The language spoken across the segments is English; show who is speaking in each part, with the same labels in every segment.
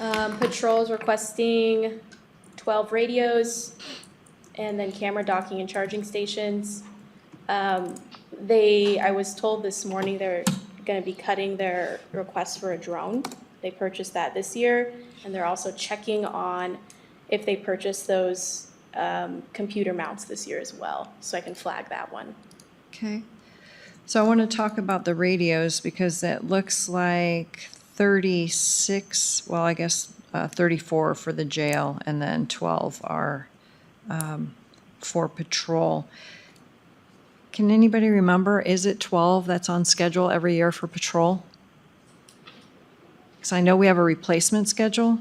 Speaker 1: Um, patrols requesting twelve radios and then camera docking and charging stations. Um, they, I was told this morning they're gonna be cutting their request for a drone. They purchased that this year and they're also checking on if they purchased those um, computer mounts this year as well, so I can flag that one.
Speaker 2: Okay. So I want to talk about the radios because it looks like 36, well, I guess uh, 34 for the jail and then 12 are um, for patrol. Can anybody remember, is it 12 that's on schedule every year for patrol? Because I know we have a replacement schedule.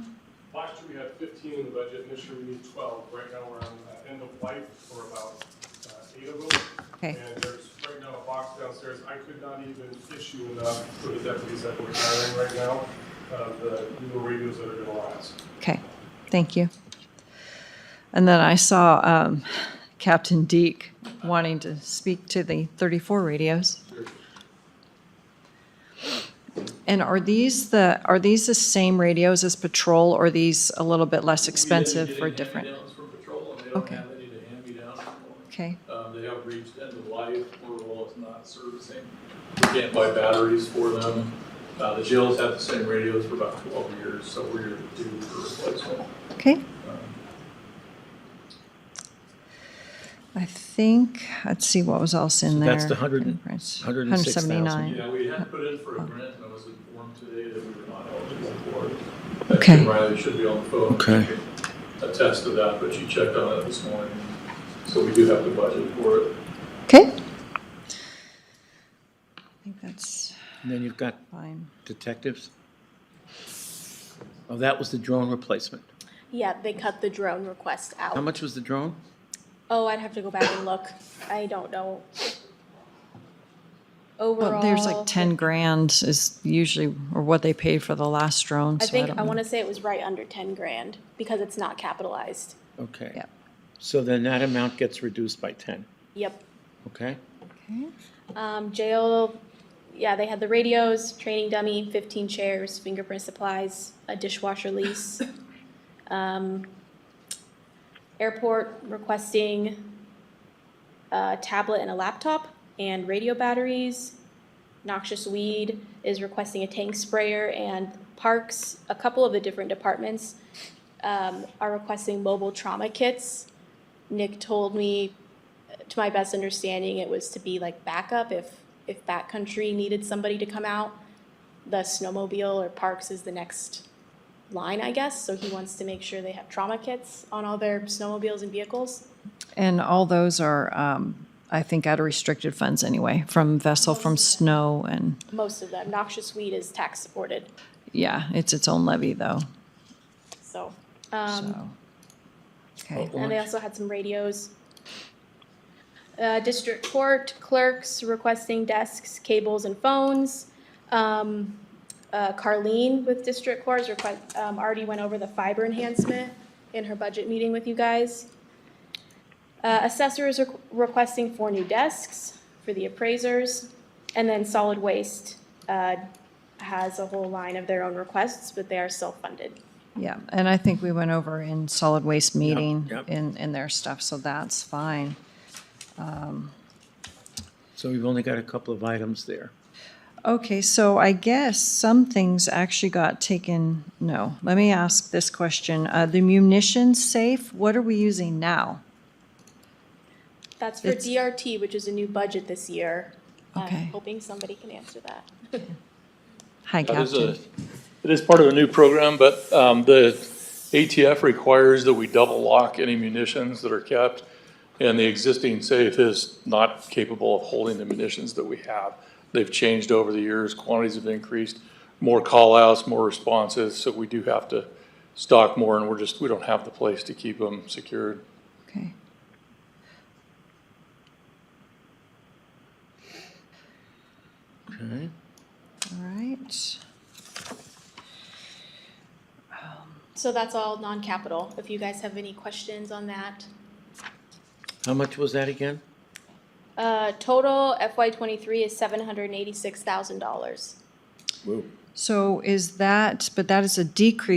Speaker 3: Last year we had fifteen in the budget, and this year we need twelve. Right now, we're on uh, end of life for about uh, eight of them.
Speaker 2: Okay.
Speaker 3: And there's right now a box downstairs. I could not even issue enough for the deputies that we're hiring right now, uh, the newer radios that are gonna last.
Speaker 2: Okay, thank you. And then I saw um, Captain Deke wanting to speak to the 34 radios. And are these the, are these the same radios as patrol, or are these a little bit less expensive or different?
Speaker 4: Hand-me-downs for patrol, and they don't
Speaker 2: Okay.
Speaker 4: have any to hand me down anymore.
Speaker 2: Okay,
Speaker 4: Um, they have reached end of life, Motorola is not servicing. We can't buy batteries for them. Uh, the jails have the same radios for about twelve years, so we're due for replacement.
Speaker 2: okay.
Speaker 4: Um,
Speaker 2: I think, let's see what was else in
Speaker 5: So
Speaker 2: there.
Speaker 5: that's the 100
Speaker 2: Fingerprints.
Speaker 5: 106,000.
Speaker 2: 179.
Speaker 4: Yeah, we had put in for a grant, and I was informed today that we were not eligible for it. Uh,
Speaker 2: Okay.
Speaker 4: Jim Riley should be on the phone.
Speaker 5: Okay.
Speaker 4: She can Attest to that, but she checked on it this morning, so we do have to budget for it.
Speaker 2: Okay. I think that's
Speaker 5: And then you've got
Speaker 2: fine.
Speaker 5: detectives. Oh, that was the drone replacement.
Speaker 1: Yeah, they cut the drone request
Speaker 5: How
Speaker 1: out.
Speaker 5: much was the drone?
Speaker 1: Oh, I'd have to go back and look. I don't know.
Speaker 2: Well, there's like
Speaker 1: Overall,
Speaker 2: 10 grand is usually, or what they paid for the last drone,
Speaker 1: I
Speaker 2: so I
Speaker 1: think,
Speaker 2: don't
Speaker 1: I
Speaker 2: know.
Speaker 1: want to say it was right under ten grand because it's not capitalized.
Speaker 5: Okay.
Speaker 2: Yep.
Speaker 5: So then that amount gets reduced by 10,
Speaker 1: Yep.
Speaker 5: okay?
Speaker 2: Okay.
Speaker 1: Um, jail, yeah, they had the radios, training dummy, fifteen chairs, fingerprint supplies, a dishwasher lease. Um, airport requesting a tablet and a laptop and radio batteries. Noxious weed is requesting a tank sprayer and parks, a couple of the different departments um, are requesting mobile trauma kits. Nick told me to my best understanding, it was to be like backup if, if backcountry needed somebody to come out. The snowmobile or parks is the next line, I guess, so he wants to make sure they have trauma kits on all their snowmobiles and vehicles.
Speaker 2: And all those are, um, I think, out of restricted funds anyway, from vessel, from snow, and,
Speaker 1: Most of them, noxious weed is tax supported,
Speaker 2: yeah, it's its own levy, though,
Speaker 1: so. Um,
Speaker 2: so. Okay,
Speaker 1: and they also had some radios. Uh, district court clerks requesting desks, cables, and phones. Um, uh, Carleen with district courts request, um, already went over the fiber enhancement in her budget meeting with you guys. Uh, assessor is requ- requesting four new desks for the appraisers. And then solid waste, uh, has a whole line of their own requests, but they are self-funded.
Speaker 2: yeah, and I think we went over in solid waste meeting
Speaker 5: yep.
Speaker 2: in, in their stuff, so that's fine.
Speaker 5: So we've only got a couple of items there.
Speaker 2: Okay, so I guess some things actually got taken, no, let me ask this question. Uh, the munitions safe, what are we using now?
Speaker 1: That's for
Speaker 2: It's-
Speaker 1: DRT, which is a new budget this year. I'm
Speaker 2: Okay.
Speaker 1: hoping somebody can answer that.
Speaker 2: Hi,
Speaker 4: That is a-
Speaker 2: Captain.
Speaker 4: It is part of a new program, but um, the ATF requires that we double lock any munitions that are kept, and the existing safe is not capable of holding the munitions that we have. They've changed over the years, quantities have increased, more callouts, more responses, so we do have to stock more, and we're just, we don't have the place to keep them secured.
Speaker 2: Okay.
Speaker 5: Okay.
Speaker 2: All right.
Speaker 1: So that's all non-capital. If you guys have any questions on that.
Speaker 5: How much was that again?
Speaker 1: Uh, total FY twenty-three is seven hundred and eighty-six thousand dollars.
Speaker 5: Whoa.
Speaker 2: So is that, but that is a decrease